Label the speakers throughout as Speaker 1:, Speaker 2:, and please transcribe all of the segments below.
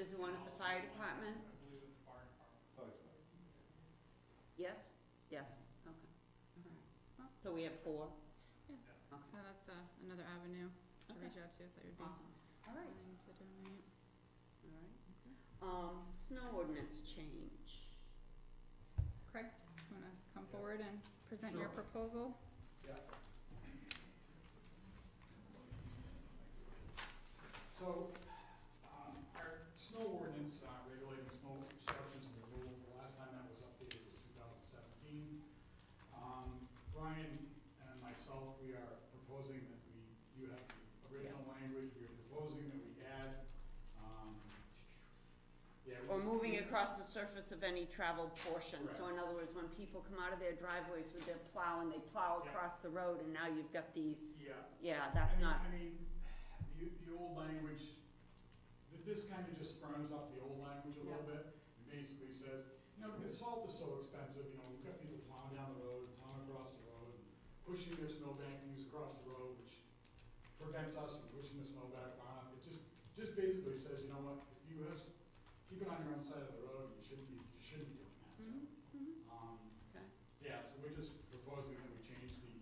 Speaker 1: Is the one at the fire department?
Speaker 2: I believe it's the fire department.
Speaker 1: Yes? Yes, okay. All right. Well, So we have four?
Speaker 2: Yeah.
Speaker 1: Okay.
Speaker 3: So that's uh, another avenue to reach out to if they would be
Speaker 1: Awesome. All right,
Speaker 3: willing to donate.
Speaker 1: all right. Um, snow ordinance change.
Speaker 3: Craig, you wanna come
Speaker 2: Yeah.
Speaker 3: forward and present your proposal?
Speaker 2: So, um, our snow ordinance, uh, regulating snow obstructions and the rule, the last time that was updated was two thousand seventeen. Um, Brian and myself, we are proposing that we, you have the original language, we are proposing that we add, um, yeah. we
Speaker 1: Or
Speaker 2: just-
Speaker 1: moving across the surface of any traveled portion. So
Speaker 2: Correct.
Speaker 1: in other words, when people come out of their driveways with their plow and they plow
Speaker 2: Yeah.
Speaker 1: across the road and now you've got these,
Speaker 2: Yeah, I
Speaker 1: yeah, that's
Speaker 2: mean,
Speaker 1: not,
Speaker 2: I mean, the, the old language, th- this kind of just firms up the old language a little bit. It basically says, you know, because salt is so expensive, you know, we've got people plowing down the road, plowing across the road, pushing their snow bankings across the road, which prevents us from pushing the snow back on. It just, just basically says, you know what, if you have, s- keep it on your own side of the road, you shouldn't be, you shouldn't be doing that, so.
Speaker 1: Mhm, mhm.
Speaker 2: Um,
Speaker 1: Okay.
Speaker 2: yeah, so we're just proposing that we change the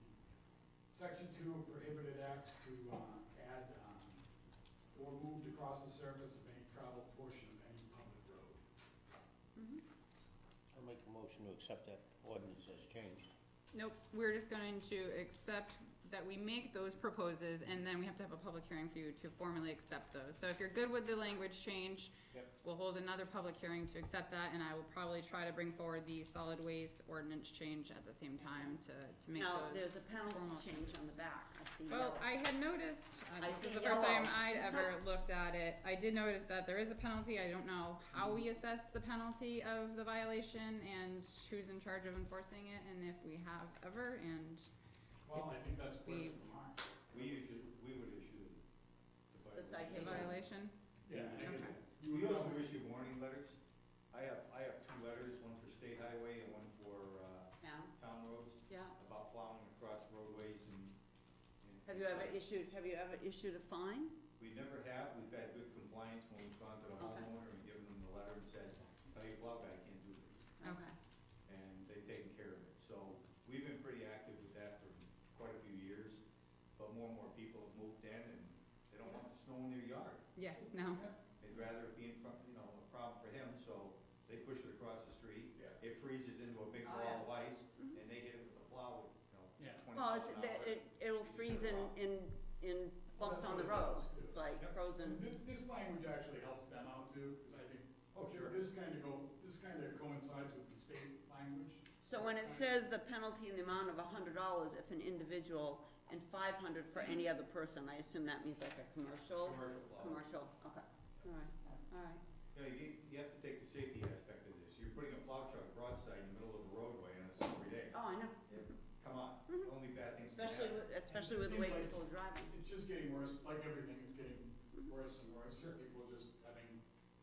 Speaker 2: section two of prohibited acts to, uh, add, um, or moved across the surface of any traveled portion of any public road.
Speaker 1: Mhm.
Speaker 4: I'll make a motion to accept that ordinance as changed.
Speaker 3: Nope, we're just going to accept that we make those proposes and then we have to have a public hearing for you to formally accept those. So if you're good with the language change,
Speaker 4: Yep.
Speaker 3: we'll hold another public hearing to accept that and I will probably try to bring forward the solid waste ordinance change at the same time to, to make those.
Speaker 1: now, there's a penalty
Speaker 3: formal
Speaker 1: change on
Speaker 3: changes.
Speaker 1: the back. I see
Speaker 3: Well,
Speaker 1: yellow.
Speaker 3: I had noticed, uh,
Speaker 1: I
Speaker 3: this
Speaker 1: see
Speaker 3: is the first time
Speaker 1: yellow.
Speaker 3: I'd ever looked at it, I did notice that there is a penalty, I don't know how we assess the penalty of the violation and who's in charge of enforcing it, and if we have ever, and,
Speaker 2: Well, I think that's clear
Speaker 3: We-
Speaker 2: from Mark.
Speaker 4: We usually, we would issue
Speaker 1: The
Speaker 4: the
Speaker 3: the
Speaker 1: citation.
Speaker 3: violation,
Speaker 2: Yeah, I guess.
Speaker 1: Okay.
Speaker 2: you
Speaker 4: We
Speaker 2: would
Speaker 4: also
Speaker 2: know.
Speaker 4: issue warning letters. I have, I have two letters, one for state highway and one for, uh,
Speaker 1: Now,
Speaker 4: town roads,
Speaker 1: yeah.
Speaker 4: about plowing across roadways and. and-
Speaker 1: Have you ever issued, have you ever issued a fine?
Speaker 4: We never have. We've had good compliance when we've gone to the
Speaker 1: Okay.
Speaker 4: homeowner and given them the letter and said, tell your plow guy I can't do this.
Speaker 3: Okay.
Speaker 4: and they've taken care of it. So we've been pretty active with that for quite a few years, but more and more people have moved in and they don't want the snow in their yard.
Speaker 3: yeah, no,
Speaker 4: They'd rather it be in front, you know, a problem for them, so they push it across the street.
Speaker 2: Yeah.
Speaker 4: It freezes into a big
Speaker 1: Oh,
Speaker 4: wall of ice
Speaker 1: Mhm.
Speaker 4: and they hit it with a plow, you know,
Speaker 2: Yeah.
Speaker 4: twenty
Speaker 1: Well, it's,
Speaker 4: miles an
Speaker 1: that- it,
Speaker 4: hour.
Speaker 1: it'll freeze in, in, in
Speaker 2: Well,
Speaker 1: bumps
Speaker 2: that's
Speaker 1: on
Speaker 2: what
Speaker 1: the
Speaker 2: it
Speaker 1: road,
Speaker 2: does, too.
Speaker 1: It's like
Speaker 4: Yep.
Speaker 1: frozen.
Speaker 2: This, this language actually helps them out too, because I think,
Speaker 4: Oh, sure.
Speaker 2: this kind of go, this kind of coincides with the state language.
Speaker 1: So when it says the penalty in the amount of a hundred dollars if an individual and five hundred for any other person, I assume that means like a commercial,
Speaker 4: Commercial plow.
Speaker 1: commercial, okay, alright, alright,
Speaker 4: You know, you, you have to take the safety aspect of this. You're putting a plow truck broadside in the middle of a roadway on a summer day.
Speaker 1: oh, I know,
Speaker 4: Come on,
Speaker 1: Mhm.
Speaker 4: only bad things can
Speaker 1: especially
Speaker 4: happen.
Speaker 1: with, especially with the way people are driving,
Speaker 2: It's just getting worse, like everything, it's getting worse and worse, people just having,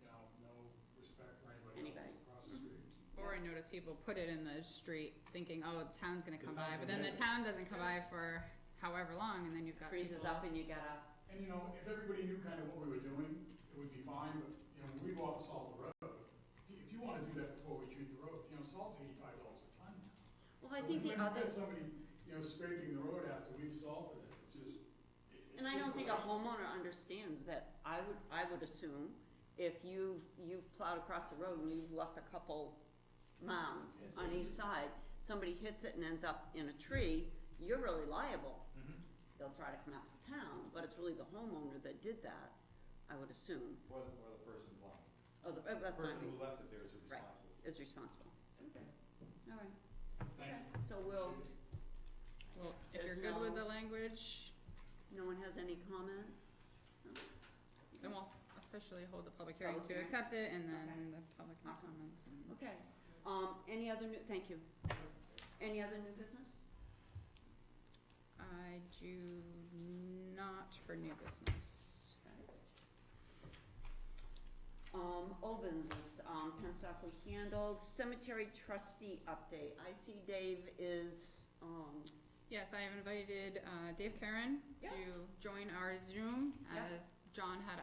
Speaker 2: you know, no respect for anybody
Speaker 1: Anybody.
Speaker 2: else across the street.
Speaker 3: or I noticed people put it in the street thinking, oh, the town's gonna
Speaker 4: The
Speaker 3: come by,
Speaker 4: town's
Speaker 3: but then the
Speaker 4: gonna-
Speaker 3: town doesn't come by for however long, and then you've got people.
Speaker 1: freezes up and you gotta,
Speaker 2: And you know, if everybody knew kind of what we were doing, it would be fine, but, you know, when we go out and salt the road, if you, if you wanna do that before we treat the road, you know, salt's eighty-five dollars a ton now.
Speaker 1: well, I think
Speaker 2: So
Speaker 1: the
Speaker 2: when you
Speaker 1: other,
Speaker 2: get somebody, you know, scraping the road after we've salted it, it's just, it- it's
Speaker 1: and I
Speaker 2: just
Speaker 1: don't think a
Speaker 2: worse.
Speaker 1: homeowner understands that, I would, I would assume if you've, you've plowed across the road and you've left a couple mounds
Speaker 4: Yes.
Speaker 1: on each side, somebody hits it and ends up in a tree, you're really liable.
Speaker 4: Mhm.
Speaker 1: they'll try to come out of town, but it's really the homeowner that did that, I would assume,
Speaker 4: Or the, or the person blind.
Speaker 1: oh, the, oh,
Speaker 4: The
Speaker 1: that's not,
Speaker 4: person who left it there is
Speaker 1: Right.
Speaker 4: responsible.
Speaker 1: is responsible. Okay. All right,
Speaker 2: Thank you.
Speaker 1: so we'll,
Speaker 3: Well, if you're
Speaker 1: There's
Speaker 3: good with the
Speaker 1: no-
Speaker 3: language,
Speaker 1: no one has any comments? No?
Speaker 3: then we'll officially hold the public hearing
Speaker 1: Public
Speaker 3: to
Speaker 1: hearing.
Speaker 3: accept it, and then
Speaker 1: Okay.
Speaker 3: the public can
Speaker 1: Awesome.
Speaker 3: comment and.
Speaker 1: Okay, um, any other new, thank you. Any other new business?
Speaker 3: I do not for new business.
Speaker 1: Um, old business, um, Pensacola handled, cemetery trustee update, I see Dave is, um,
Speaker 3: Yes, I have invited uh, Dave Karen
Speaker 1: Yeah.
Speaker 3: to join our Zoom
Speaker 1: Yeah.
Speaker 3: as John had